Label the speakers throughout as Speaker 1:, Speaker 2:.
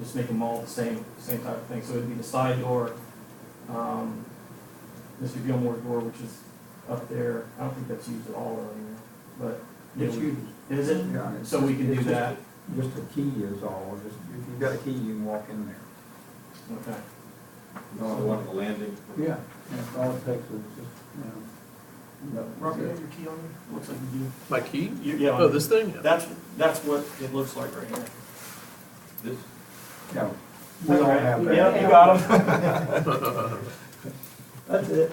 Speaker 1: just make them all the same, same type of thing. So it'd be the side door, um, Mr. Gilmore's door, which is up there. I don't think that's used at all or anywhere, but.
Speaker 2: It's
Speaker 1: Yeah,
Speaker 2: used.
Speaker 1: we- Is it?
Speaker 2: Yeah, it's
Speaker 1: So we can
Speaker 2: just-
Speaker 1: do that?
Speaker 2: Just a key is all, just, if you've got a key, you can walk in there.
Speaker 1: Okay.
Speaker 3: So one of the landing.
Speaker 2: Yeah, that's all it takes is just, you know.
Speaker 1: Rob, you have your key on you? Looks like you
Speaker 4: My key?
Speaker 1: do. You- Yeah.
Speaker 4: Oh, this thing?
Speaker 1: That's, that's what it looks like right here.
Speaker 3: This,
Speaker 2: Yeah, we all have that.
Speaker 1: Yeah, you got them.
Speaker 2: That's it.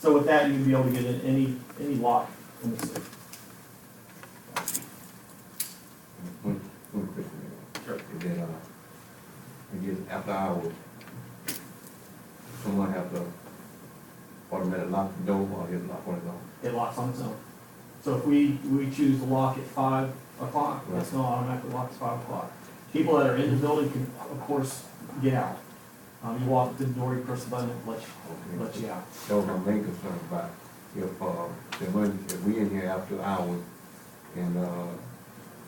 Speaker 1: So with that, you'd be able to get in any, any lot in the city.
Speaker 5: One, one question.
Speaker 1: Sure.
Speaker 5: Is that, uh, I guess after hours, someone have to automatically lock the door or his lock on uh, his own?
Speaker 1: It locks on its own. So if we, we choose to lock at five o'clock, that's not automatically locked at five o'clock. People that are in the building can, of course, get out. Um, you walk up to the door, you press the button, it lets, you-
Speaker 5: Okay.
Speaker 1: lets you out.
Speaker 5: That was my main concern about if, uh, if we, if we in here after hours and, uh,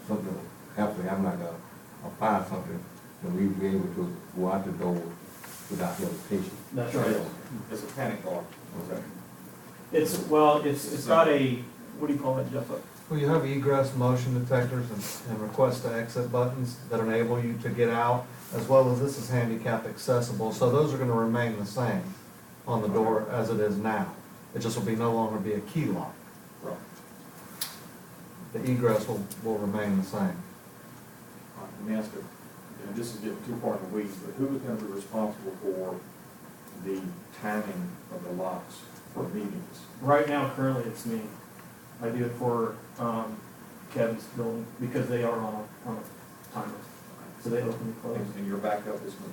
Speaker 5: something happens, I'm like a, a fire or something, then we be able to go out the door without hesitation.
Speaker 1: That's right.
Speaker 3: it's a panic bar.
Speaker 5: Okay.
Speaker 1: It's, well, it's, it's got a, what do you call it, Jeff? A-
Speaker 6: Well, you have egress motion detectors and, and request to exit buttons that enable you to get out, as well as this is handicap accessible, so those are gonna remain the same on the door as it is now. It just will be, no longer be a key lock.
Speaker 3: Right.
Speaker 6: The egress will, will remain the same.
Speaker 3: All right, Let me ask you, and this is getting too far in the weeds, but who is gonna be responsible for the timing of the locks for meetings?
Speaker 1: Right now, currently, it's me. I do it for um, Kevin's building because they are on a, on a timer, so they open and close.
Speaker 3: And and your backup is me.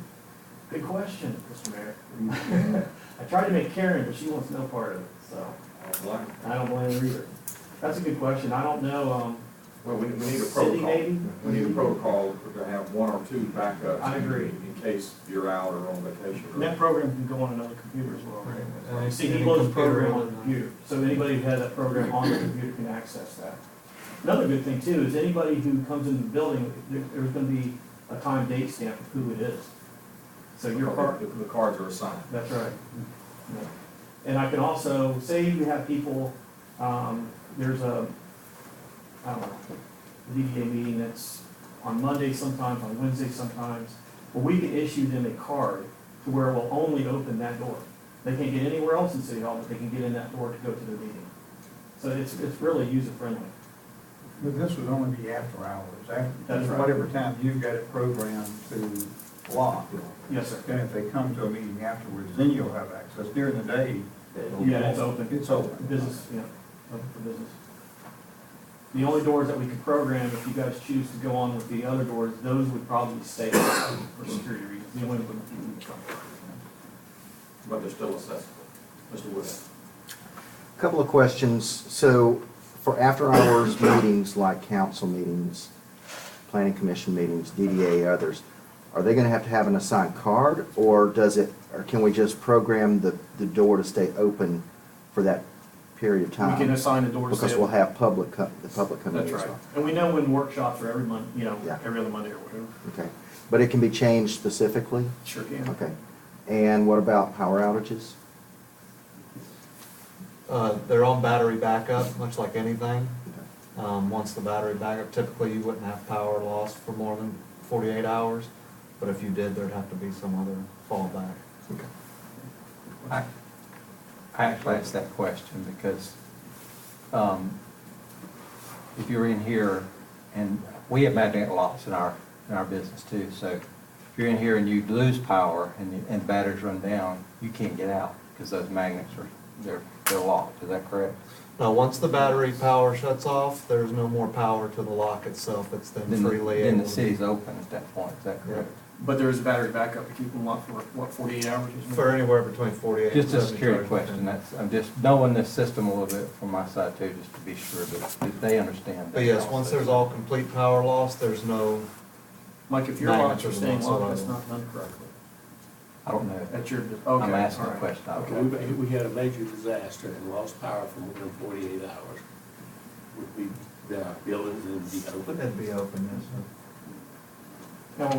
Speaker 1: Good question, Mr. Mayor. I tried to make Karen, but she wants no part of it, so
Speaker 3: I don't like it.
Speaker 1: I don't blame her either. That's a good question. I don't know, um,
Speaker 3: Well, we, we need a
Speaker 1: Cindy
Speaker 3: protocol.
Speaker 1: maybe?
Speaker 3: We need a protocol to have one or two backups.
Speaker 1: I agree.
Speaker 3: In case you're out or on vacation.
Speaker 1: And that program can go on another computer as well. right?
Speaker 6: And
Speaker 1: See, he
Speaker 6: any
Speaker 1: loads the
Speaker 6: computer
Speaker 1: program on
Speaker 6: will-
Speaker 1: the computer, so anybody who has that program on the computer can access that. Another good thing too, is anybody who comes into the building, there, there's gonna be a time date stamp of who it is. So your part,
Speaker 3: The the cards are assigned.
Speaker 1: that's right. Yeah. And I can also, say you have people, um, there's a, I don't know, DDA meeting that's on Monday sometimes, on Wednesday sometimes, but we can issue them a card to where we'll only open that door. They can't get anywhere else in City Hall, but they can get in that door to go to the meeting. So it's, it's really user friendly.
Speaker 2: But this would only be after hours,
Speaker 1: That's
Speaker 2: after,
Speaker 1: right.
Speaker 2: whatever time you've got it programmed to lock.
Speaker 1: Yes, sir.
Speaker 2: Then if they come to a meeting afterwards, then you'll have access. During the day,
Speaker 1: Yeah, it's open.
Speaker 2: it's open.
Speaker 1: Business, yeah, open for business. The only doors that we could program, if you guys choose to go on with the other doors, those would probably stay for security reasons. The only one we would come.
Speaker 3: But they're still accessible. Mr. Wood.
Speaker 7: Couple of questions. So for after-hours meetings like council meetings, planning commission meetings, DDA, others, are they gonna have to have an assigned card? Or does it, or can we just program the, the door to stay open for that period of time?
Speaker 1: We can assign the doors.
Speaker 7: Because
Speaker 1: that-
Speaker 7: we'll have public, co- the public coming in
Speaker 1: That's right.
Speaker 7: as well.
Speaker 1: And we know when workshops are every month, you know,
Speaker 7: Yeah.
Speaker 1: every other Monday or whatever.
Speaker 7: Okay. But it can be changed specifically?
Speaker 1: Sure can.
Speaker 7: Okay. And what about power outages?
Speaker 6: Uh, they're on battery backup, much like anything.
Speaker 7: Okay.
Speaker 6: Um, once the battery backup, typically you wouldn't have power loss for more than forty-eight hours, but if you did, there'd have to be some other fallback.
Speaker 7: Okay.
Speaker 8: I, I actually asked that question because, um, if you're in here, and we have magnetic locks in our, in our business too, so if you're in here and you lose power and, the- and batteries run down, you can't get out because those magnets are, they're, they're locked, is that correct?
Speaker 6: Now, once the battery power shuts off, there's no more power to the lock itself, it's then
Speaker 8: Then the-
Speaker 6: freely
Speaker 8: Then
Speaker 6: able
Speaker 8: the
Speaker 6: to
Speaker 8: city's
Speaker 6: be-
Speaker 8: open at that point, is that correct?
Speaker 1: But there is battery backup to keep them locked for, what, forty-eight hours? or something?
Speaker 6: For anywhere between forty-eight and
Speaker 8: Just a security
Speaker 6: 72.
Speaker 8: question, that's, I'm just knowing this system a little bit from my side too, just to be sure that, that they understand.
Speaker 6: But
Speaker 8: that
Speaker 6: yes,
Speaker 8: also.
Speaker 6: once there's all complete power loss, there's no,
Speaker 1: Like if your
Speaker 6: Nine
Speaker 1: locks are
Speaker 6: inches
Speaker 1: staying
Speaker 6: whatsoever.
Speaker 1: locked, that's not done correctly.
Speaker 8: I don't know.
Speaker 1: That's your, okay.
Speaker 8: I'm asking
Speaker 1: all
Speaker 8: a
Speaker 1: right.
Speaker 8: question. I
Speaker 9: Okay,
Speaker 8: don't know.
Speaker 9: we, we had a major disaster and lost power for more than uh, forty-eight hours. Would we, the buildings would be open?
Speaker 6: it'd be open, yes.